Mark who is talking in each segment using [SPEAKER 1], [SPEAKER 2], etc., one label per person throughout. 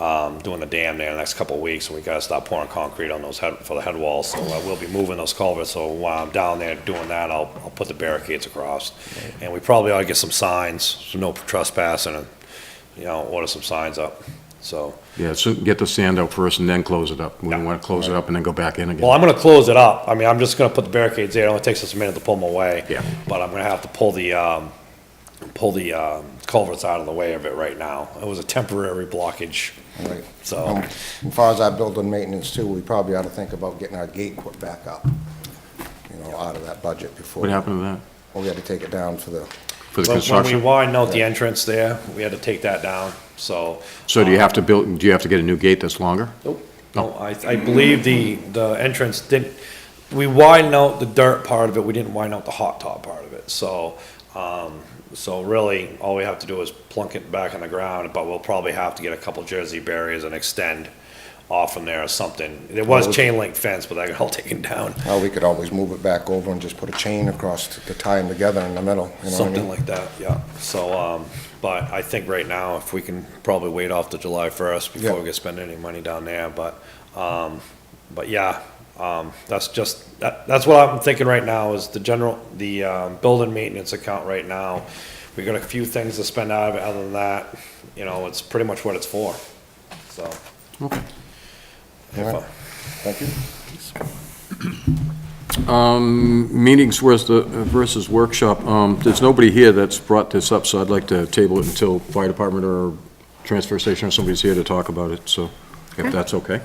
[SPEAKER 1] um, doing the dam there in the next couple of weeks, and we gotta stop pouring concrete on those head, for the head walls, so uh, we'll be moving those culverts, so while I'm down there doing that, I'll, I'll put the barricades across. And we probably ought to get some signs, some no trespassing, and, you know, order some signs up, so.
[SPEAKER 2] Yeah, so get the sand out first and then close it up. We don't want to close it up and then go back in
[SPEAKER 1] Well,
[SPEAKER 2] again.
[SPEAKER 1] I'm gonna close it up. I mean, I'm just gonna put the barricades there. It only takes us a minute to pull them away.
[SPEAKER 2] Yeah.
[SPEAKER 1] But I'm gonna have to pull the, um, pull the, um, culverts out of the way of it right now. It was a temporary blockage.
[SPEAKER 3] Right.
[SPEAKER 1] So-
[SPEAKER 3] Um, As far as our building maintenance too, we probably ought to think about getting our gate put back up, you know, out of that budget before.
[SPEAKER 2] What happened to that?
[SPEAKER 3] Well, we had to take it down for the,
[SPEAKER 2] For the
[SPEAKER 1] But when we
[SPEAKER 2] construction?
[SPEAKER 1] widened out the entrance there, we had to take that down, so.
[SPEAKER 2] So do you have to build, do you have to get a new gate that's longer?
[SPEAKER 1] Nope.
[SPEAKER 2] No.
[SPEAKER 1] No, I, I believe the, the entrance didn't, we widened out the dirt part of it, we didn't widen out the hot top part of it, so, um, so really, all we have to do is plunk it back on the ground, but we'll probably have to get a couple jersey barriers and extend off from there or something. There was chain link fence, but that got all taken down,
[SPEAKER 3] well, we could always move it back over and just put a chain across to tie them together in the middle, you know what I
[SPEAKER 1] something
[SPEAKER 3] mean?
[SPEAKER 1] like that, yeah. So, um, but I think right now, if we can probably wait off to July first before
[SPEAKER 3] Yeah.
[SPEAKER 1] we get spending any money down there, but, um, but yeah, um, that's just, that, that's what I'm thinking right now is the general, the, um, building maintenance account right now. We got a few things to spend out of it, other than that, you know, it's pretty much what it's for, so.
[SPEAKER 2] Okay.
[SPEAKER 1] if uh, I-
[SPEAKER 3] Thank you.
[SPEAKER 2] Um, meetings versus, the- versus workshop, um, there's nobody here that's brought this up, so I'd like to table it until fire department or transfer station or somebody's here to talk about it, so if that's okay.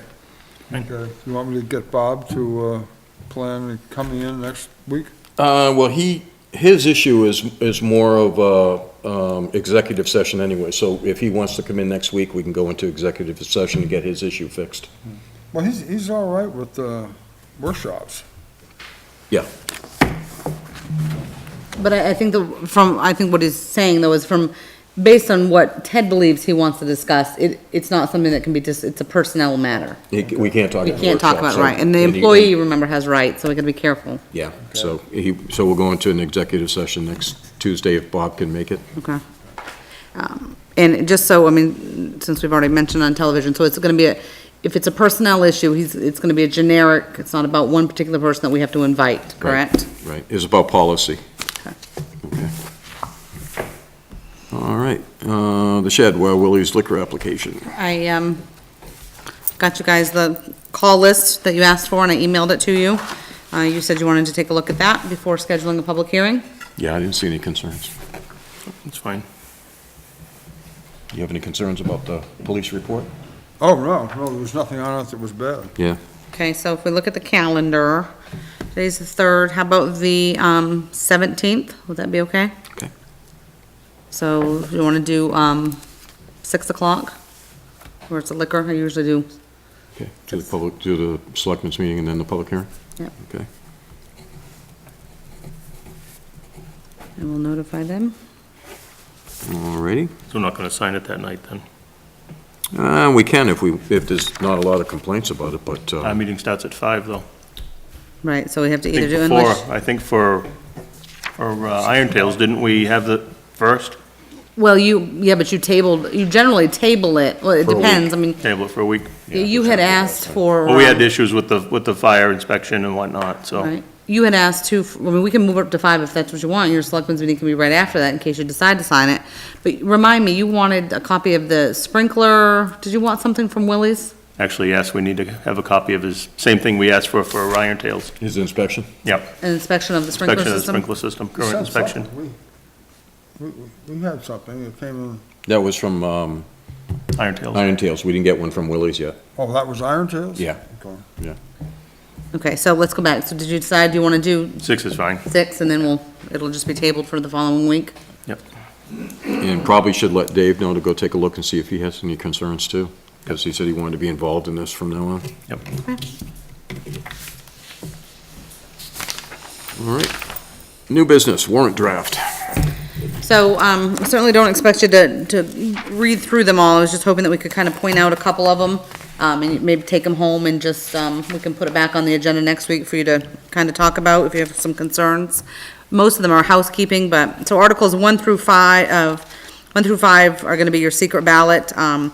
[SPEAKER 4] Okay, you want me to get Bob to uh, plan coming in next week?
[SPEAKER 2] Uh, well, he, his issue is, is more of a, um, executive session anyway, so if he wants to come in next week, we can go into executive session and get his issue fixed.
[SPEAKER 4] Well, he's, he's all right with uh, workshops.
[SPEAKER 2] Yeah.
[SPEAKER 5] But I, I think the, from, I think what he's saying though is from, based on what Ted believes he wants to discuss, it, it's not something that can be just, it's a personnel matter.
[SPEAKER 2] He- We can't talk about
[SPEAKER 5] We
[SPEAKER 2] workshops.
[SPEAKER 5] can't talk about,
[SPEAKER 2] so-
[SPEAKER 5] right, and the
[SPEAKER 2] he-
[SPEAKER 5] employee, remember, has rights, so we gotta be careful,
[SPEAKER 2] Yeah, so he, so we'll go into an executive session next Tuesday if Bob can make it.
[SPEAKER 5] okay? Um, And just so, I mean, since we've already mentioned on television, so it's gonna be a, if it's a personnel issue, he's, it's gonna be a generic, it's not about one particular person that we have to invite, correct?
[SPEAKER 2] Right, it's about policy.
[SPEAKER 5] Okay.
[SPEAKER 2] Okay. All right, uh, the shed, Wild Willie's liquor application.
[SPEAKER 5] I, um, got you guys the call list that you asked for, and I emailed it to you. Uh, you said you wanted to take a look at that before scheduling a public hearing.
[SPEAKER 2] Yeah, I didn't see any concerns. That's fine. You have any concerns about the police report?
[SPEAKER 4] Oh, no, no, there was nothing on it that was bad.
[SPEAKER 2] Yeah.
[SPEAKER 5] Okay, so if we look at the calendar, today's the third, how about the, um, seventeenth? Would that be okay?
[SPEAKER 2] Okay.
[SPEAKER 5] So you wanna do, um, six o'clock? Or it's a liquor, I usually do.
[SPEAKER 2] Okay, to the public, to the selectmen's meeting and then the public hearing?
[SPEAKER 5] Yep.
[SPEAKER 2] Okay.
[SPEAKER 5] I will notify them.
[SPEAKER 2] All righty.
[SPEAKER 6] So we're not going to sign it that night, then?
[SPEAKER 2] Uh, we can if we, if there's not a lot of complaints about it, but, uh,
[SPEAKER 6] Our meeting starts at five, though.
[SPEAKER 5] Right, so we have to
[SPEAKER 6] I
[SPEAKER 5] either
[SPEAKER 6] think
[SPEAKER 5] do
[SPEAKER 6] before-
[SPEAKER 5] English.
[SPEAKER 6] I think for, for uh, Iron Tales, didn't we have the first
[SPEAKER 5] Well, you, yeah, but you tabled, you generally table it, well, it
[SPEAKER 2] For a week.
[SPEAKER 5] depends, I mean,
[SPEAKER 6] table for a week?
[SPEAKER 5] You had asked for.
[SPEAKER 6] Well, we had
[SPEAKER 5] um,
[SPEAKER 6] issues with the, with the fire inspection and whatnot, so.
[SPEAKER 5] right. You had asked to, I mean, we can move up to five if that's what you want. Your selectmen's meeting can be right after that in case you decide to sign it. But remind me, you wanted a copy of the sprinkler, did you want something from Willie's?
[SPEAKER 6] Actually, yes, we need to have a copy of his, same thing we asked for, for Iron Tales.
[SPEAKER 2] his inspection?
[SPEAKER 6] Yep.
[SPEAKER 5] An inspection of the sprinkler
[SPEAKER 6] Inspection of
[SPEAKER 5] system?
[SPEAKER 6] the sprinkler system,
[SPEAKER 4] We
[SPEAKER 6] current
[SPEAKER 4] sent
[SPEAKER 6] inspection.
[SPEAKER 4] something. We, we- we had something, it came in,
[SPEAKER 2] That was from, um,
[SPEAKER 6] Iron Tales.
[SPEAKER 2] Iron Tales. We didn't get one from Willie's yet.
[SPEAKER 4] oh, that was Iron Tales?
[SPEAKER 2] Yeah.
[SPEAKER 4] Okay.
[SPEAKER 5] Okay, so let's go back. So did you decide you want to do
[SPEAKER 6] Six is fine.
[SPEAKER 5] six and then we'll, it'll just be tabled for the following week?
[SPEAKER 6] Yep.
[SPEAKER 2] And probably should let Dave know to go take a look and see if he has any concerns too, because he said he wanted to be involved in this from now on.
[SPEAKER 6] Yep.
[SPEAKER 2] All right. New business, warrant draft.
[SPEAKER 5] So, um, I certainly don't expect you to, to read through them all, I was just hoping that we could kind of point out a couple of them, um, and maybe take them home and just, um, we can put it back on the agenda next week for you to kind of talk about if you have some concerns. Most of them are housekeeping, uh, but, so Articles one through five, of, one through five are gonna be your secret ballot, um,